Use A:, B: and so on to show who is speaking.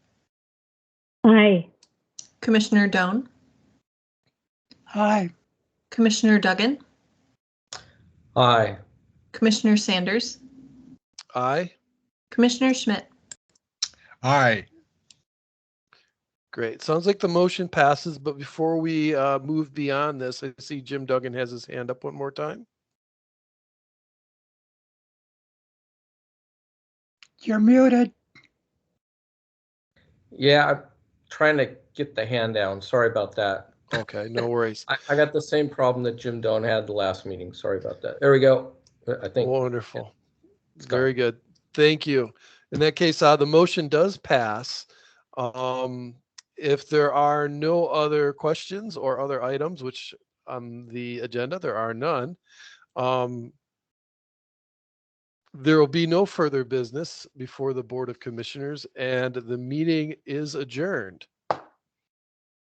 A: Commissioner Doan,
B: Aye.
A: Commissioner Duggan,
C: Aye.
A: Commissioner Sanders,
D: Aye.
A: Commissioner Schmidt.
B: Aye.
D: Great. Sounds like the motion passes, but before we uh, move beyond this, I see Jim Duggan has his hand up one more time.
B: You're muted.
C: Yeah, I'm trying to get the hand down. Sorry about that.
D: Okay, no worries.
C: I, I got the same problem that Jim Doan had the last meeting. Sorry about that. There we go. I think.
D: Wonderful.
C: it's gone.
D: Very good. Thank you. In that case, uh, the motion does pass. Um, if there are no other questions or other items, which on the agenda, there are none. Um, there will be no further business before the Board of Commissioners and the meeting is adjourned.